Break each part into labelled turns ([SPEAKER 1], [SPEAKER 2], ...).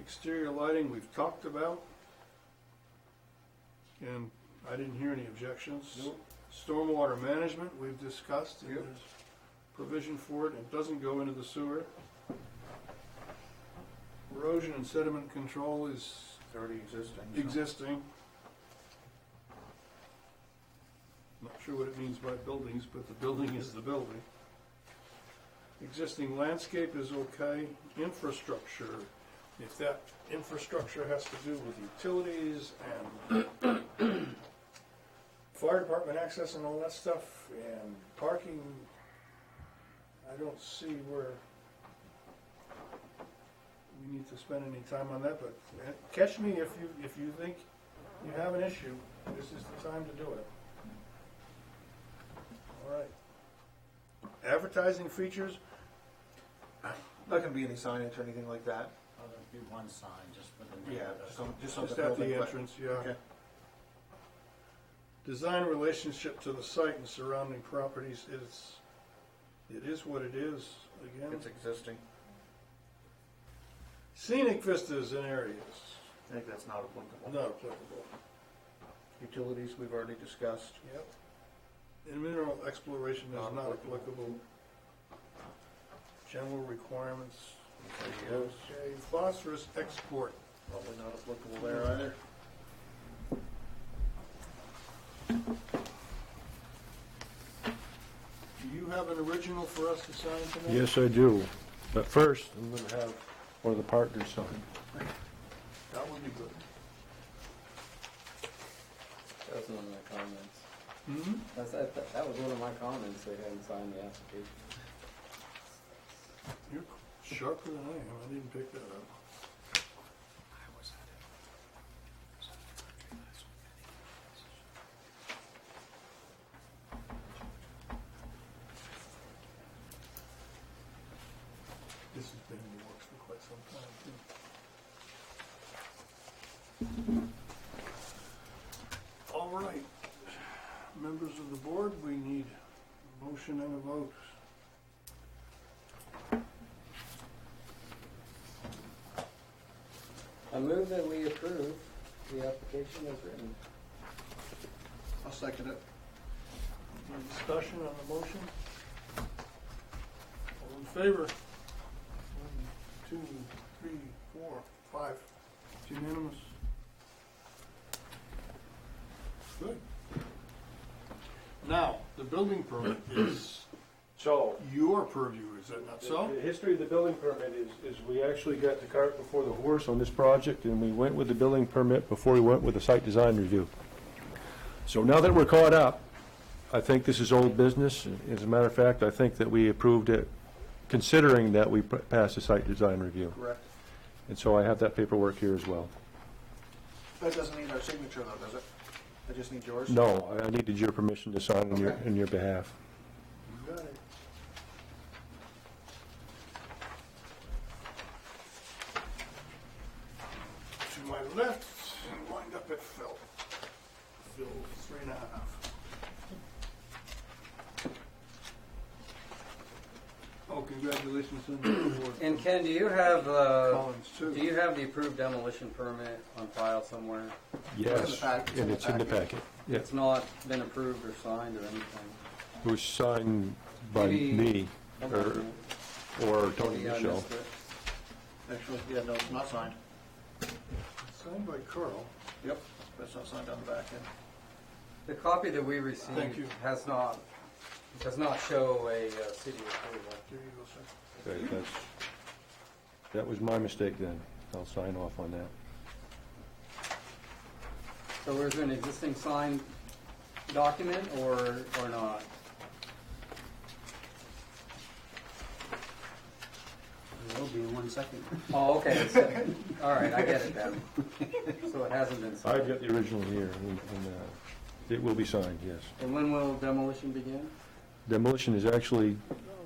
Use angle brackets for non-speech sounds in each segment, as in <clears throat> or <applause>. [SPEAKER 1] Exterior lighting, we've talked about. And I didn't hear any objections.
[SPEAKER 2] Nope.
[SPEAKER 1] Stormwater management, we've discussed, and
[SPEAKER 2] Yep.
[SPEAKER 1] there's provision for it, it doesn't go into the sewer. Erosion and sediment control is
[SPEAKER 2] It's already existing. so-
[SPEAKER 1] existing. Not sure what it means by buildings, but the building is the building. Existing landscape is okay. Infrastructure, if that infrastructure has to do with utilities and <coughs> fire department access and all that stuff and parking, I don't see where we need to spend any time on that, but uh, catch me if you, if you think you have an issue, this is the time to do it. All right. Advertising features,
[SPEAKER 2] Not gonna be any signage or anything like that?
[SPEAKER 3] Oh, there'd be one sign just for the name
[SPEAKER 2] Yeah,
[SPEAKER 3] of
[SPEAKER 2] just
[SPEAKER 3] the-
[SPEAKER 2] on, just on Oh, the
[SPEAKER 1] just at
[SPEAKER 2] building.
[SPEAKER 1] the
[SPEAKER 2] but-
[SPEAKER 1] entrance, yeah.
[SPEAKER 2] Okay.
[SPEAKER 1] Design relationship to the site and surrounding properties is, it is what it is, again.
[SPEAKER 2] It's existing.
[SPEAKER 1] Scenic vistas and areas,
[SPEAKER 2] I think that's not applicable.
[SPEAKER 1] not applicable.
[SPEAKER 2] Utilities, we've already discussed.
[SPEAKER 1] Yep. And mineral exploration is
[SPEAKER 2] Not
[SPEAKER 1] not
[SPEAKER 2] applicable.
[SPEAKER 1] applicable. General requirements.
[SPEAKER 2] Yes.
[SPEAKER 1] Okay, phosphorus export.
[SPEAKER 2] Probably not applicable there either.
[SPEAKER 1] Do you have an original for us to sign tonight?
[SPEAKER 4] Yes, I do. But first, I'm gonna have one of the partners sign.
[SPEAKER 1] That would be good.
[SPEAKER 5] That was one of my comments.
[SPEAKER 1] Hmm?
[SPEAKER 5] That's, that, that- that was one of my comments, they hadn't signed the application.
[SPEAKER 1] You're sharper than I am, I didn't pick that up. This has been in the works for quite some time, too. All right, members of the board, we need a motion and a vote.
[SPEAKER 5] I move that we approve the application as written.
[SPEAKER 2] I'll second it.
[SPEAKER 1] Any discussion on the motion? All in favor? One, two, three, four, five. It's unanimous. Good. Now, the building permit is
[SPEAKER 6] So,
[SPEAKER 1] your purview, is that not so?
[SPEAKER 6] the history of the building permit is, is we actually got the cart before the horse on this project, and we went with the building permit before we went with the site design review. So now that we're caught up, I think this is old business. As a matter of fact, I think that we approved it considering that we p- passed the site design review.
[SPEAKER 2] Correct.
[SPEAKER 6] And so I have that paperwork here as well.
[SPEAKER 2] That doesn't need our signature though, does it? I just need yours?
[SPEAKER 6] No, I- I needed your permission to sign on your,
[SPEAKER 2] Okay.
[SPEAKER 6] on your behalf.
[SPEAKER 1] You got it. To my left, and wind up at Phil. Phil, three and a half. Oh, congratulations on
[SPEAKER 5] <clears throat>
[SPEAKER 1] the award.
[SPEAKER 5] And Ken, do you have, uh,
[SPEAKER 1] Collins, too.
[SPEAKER 5] do you have the approved demolition permit on file somewhere?
[SPEAKER 6] Yes,
[SPEAKER 2] pack- it's in
[SPEAKER 6] and
[SPEAKER 2] the
[SPEAKER 6] it's in the
[SPEAKER 2] package.
[SPEAKER 6] packet. Yes,
[SPEAKER 5] It's not been approved or signed or anything.
[SPEAKER 6] it was signed by
[SPEAKER 5] Maybe-
[SPEAKER 6] me, or, or Tony
[SPEAKER 5] Maybe I
[SPEAKER 6] Michelle.
[SPEAKER 5] missed it.
[SPEAKER 2] Actually, yeah, no, it's not signed.
[SPEAKER 1] Signed by Carl.
[SPEAKER 2] Yep. That's not signed on the back end.
[SPEAKER 5] The copy that we
[SPEAKER 1] Thank you.
[SPEAKER 5] received has not, does not show a uh, city approval.
[SPEAKER 1] There you go, sir.
[SPEAKER 6] Okay, that's, that was my mistake then. I'll sign off on that.
[SPEAKER 5] So is there an existing signed document or, or not?
[SPEAKER 3] There will be in one second.
[SPEAKER 5] Oh, okay, so, all right, I get it then. So it hasn't been
[SPEAKER 6] I've
[SPEAKER 5] signed.
[SPEAKER 6] got the original here, and, and, uh, it will be signed, yes.
[SPEAKER 5] And when will demolition begin?
[SPEAKER 6] Demolition is actually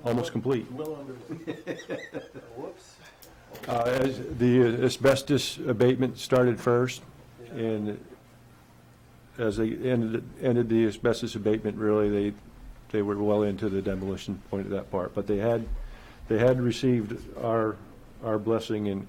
[SPEAKER 6] almost complete.
[SPEAKER 1] Well underway.
[SPEAKER 5] Whoops.
[SPEAKER 6] Uh, as, the asbestos abatement started first, and as they ended, ended the asbestos abatement, really, they, they were well into the demolition point of that part. But they had, they had received our, our blessing and,